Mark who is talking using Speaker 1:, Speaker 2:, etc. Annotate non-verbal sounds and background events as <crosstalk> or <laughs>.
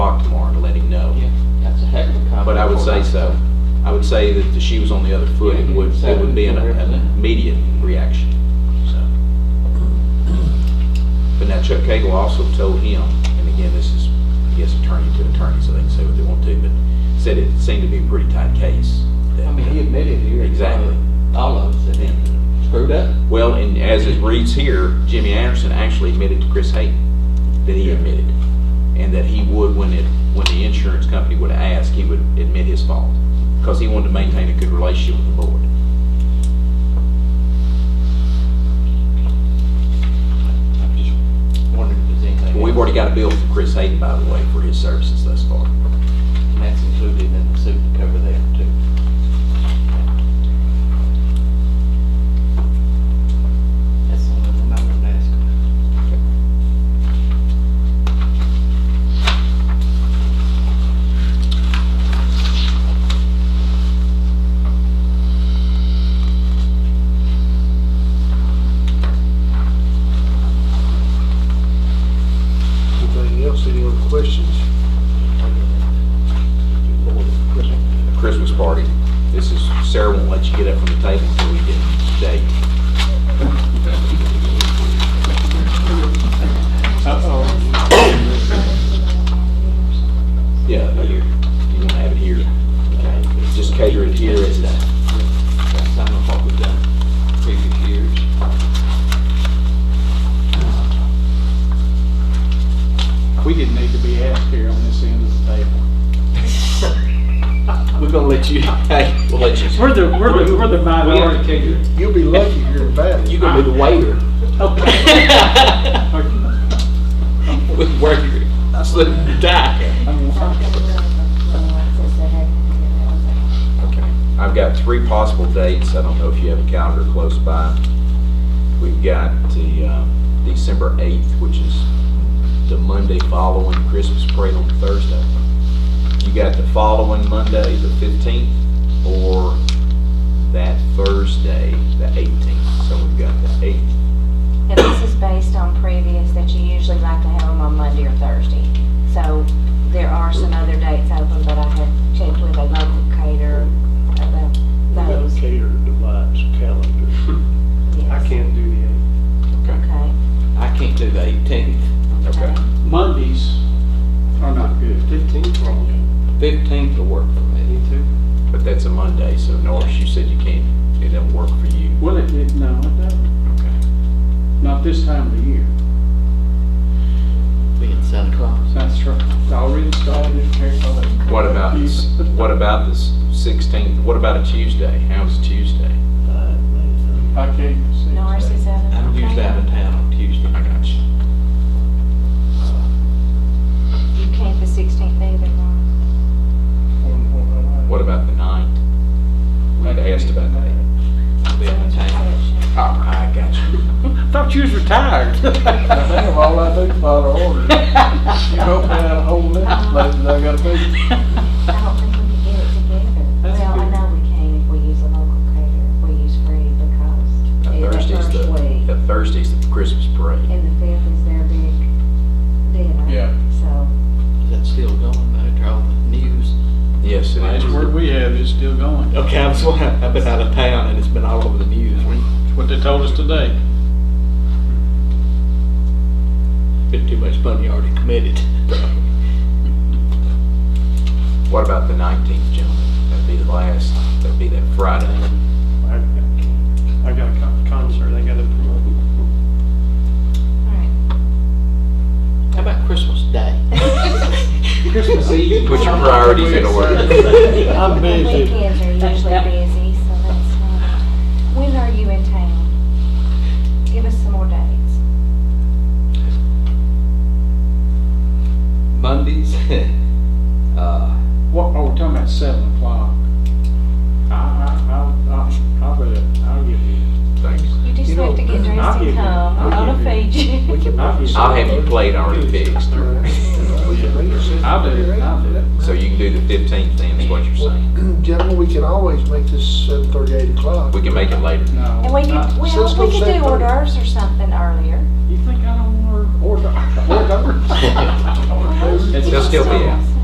Speaker 1: would say so. I would say that if she was on the other foot, it would, it would be an an immediate reaction, so. But now Chuck Cagle also told him, and again, this is, I guess, attorney to attorney, so they can say what they want to, but said it seemed to be a pretty tight case. that-
Speaker 2: I mean, he admitted here.
Speaker 1: Exactly.
Speaker 2: All of us, that he screwed up.
Speaker 1: Well, and as it reads here, Jimmy Anderson actually admitted to Chris Hayden that he admitted, and that he would, when it, when the insurance company would ask, he would admit his fault, because he wanted to maintain a good relationship with the board.
Speaker 2: I'm just wondering if there's anything.
Speaker 1: We've
Speaker 2: else.
Speaker 1: already got a bill from Chris Hayden, by the way, for his services thus far.
Speaker 2: And that's included in the suit to cover that too. That's the only one I would ask.
Speaker 3: Anything else, any other questions?
Speaker 1: Christmas party. This is, Sarah won't let you get up from the table until we get the date. Yeah, but you're, you want to have it here. Okay. Just cater it here as that.
Speaker 2: That's some of what we've done previous years.
Speaker 4: We didn't need to be asked here on this end of the table. We're gonna let you.
Speaker 1: Hey, we'll let you,
Speaker 4: We're the, we're the, we're the minority.
Speaker 3: You'll be lucky if you're invited.
Speaker 1: you can be the waiter.
Speaker 4: Okay.
Speaker 1: <laughs> With work, I slip and die. Okay. I've got three possible dates. I don't know if you have a calendar close by. We've got the uh, December 8th, which is the Monday following Christmas parade on Thursday. You got the following Monday, the 15th, or that Thursday, the 18th. So we've got the 8th.
Speaker 5: And this is based on previous that you usually like to have them on Monday or Thursday. So there are some other dates open, but I had checked with a local caterer about those.
Speaker 3: Cater divides calendar.
Speaker 5: Yes.
Speaker 3: I can't do the
Speaker 5: Okay.
Speaker 2: I can't do the eighteenth,
Speaker 1: Okay.
Speaker 4: Mondays are not good.
Speaker 3: fifteenth wrong.
Speaker 2: fifteenth will work for me.
Speaker 3: too.
Speaker 1: But that's a Monday, so Norris, you said you can't, it doesn't work for you.
Speaker 4: Well, it, it, no, it doesn't.
Speaker 1: Okay.
Speaker 4: Not this time of the year.
Speaker 2: Being Santa Claus.
Speaker 4: That's right. It's already started.
Speaker 1: What about, this- what about the 16th? What about a Tuesday? How's Tuesday?
Speaker 4: I can't see.
Speaker 5: Norris is out of.
Speaker 2: I'm usually out of town on Tuesday.
Speaker 1: I got you.
Speaker 5: You can't the sixteenth either, Norris.
Speaker 1: What about the ninth? We had asked about that.
Speaker 2: I'll be out of town.
Speaker 1: Oh, I got
Speaker 5: <laughs>
Speaker 1: you.
Speaker 4: Thought you was
Speaker 1: <laughs>
Speaker 4: retired.
Speaker 3: I think of all I do, follow order. You open out a whole list, like, I gotta do.
Speaker 5: I don't think we can get it together.
Speaker 4: That's
Speaker 5: Well, I
Speaker 4: good.
Speaker 5: know we can if we use a local caterer, if we use free because
Speaker 1: Now,
Speaker 5: it's the
Speaker 1: Thursday's
Speaker 5: first
Speaker 1: the,
Speaker 5: week.
Speaker 1: the Thursday's the Christmas parade.
Speaker 5: And the fifth is their big dinner.
Speaker 3: Yeah.
Speaker 5: So.
Speaker 2: Is that still going after all the news?
Speaker 1: Yes, it
Speaker 4: That's where
Speaker 1: is.
Speaker 4: we have, it's still going.
Speaker 2: Okay, I'm sorry. I've been out of town and it's been all over the news. We
Speaker 4: What they told us today.
Speaker 2: Been too much money already committed.
Speaker 1: What about the nineteenth, gentlemen? That'd be the last, that'd be that Friday.
Speaker 3: I got a concert, I gotta promote.
Speaker 2: How about Christmas Day?
Speaker 5: <laughs>
Speaker 4: Christmas Eve.
Speaker 1: Put your priorities in order.
Speaker 3: I'm
Speaker 2: <laughs>
Speaker 3: busy.
Speaker 5: Weekends are usually busy, so that's not. When are you in town? Give us some more dates.
Speaker 2: Mondays. <laughs> uh,
Speaker 4: What, oh, we're talking about seven o'clock. I, I, I, I'll, I'll bet, I'll give you.
Speaker 1: Thanks.
Speaker 5: You just
Speaker 3: You know,
Speaker 5: have to get
Speaker 3: I'll
Speaker 5: dressed
Speaker 3: give
Speaker 5: and
Speaker 3: you-
Speaker 5: come. I'm
Speaker 3: I'll
Speaker 5: gonna feed
Speaker 3: give
Speaker 5: you.
Speaker 1: I'll have you played already fixed,
Speaker 4: I'll do it, I'll do it.
Speaker 1: so you can do the fifteenth then, is what you're saying.
Speaker 3: Gentlemen, we can always make this seven thirty, eight o'clock.
Speaker 1: We can make it later.
Speaker 4: No.
Speaker 5: And we could,
Speaker 4: not-
Speaker 3: Since
Speaker 5: well, we could
Speaker 3: those
Speaker 5: do
Speaker 3: same
Speaker 5: hors
Speaker 3: things.
Speaker 5: d'oeuvres or something earlier.
Speaker 1: <laughs>
Speaker 4: You think I don't want to order, order?
Speaker 1: They'll still be out.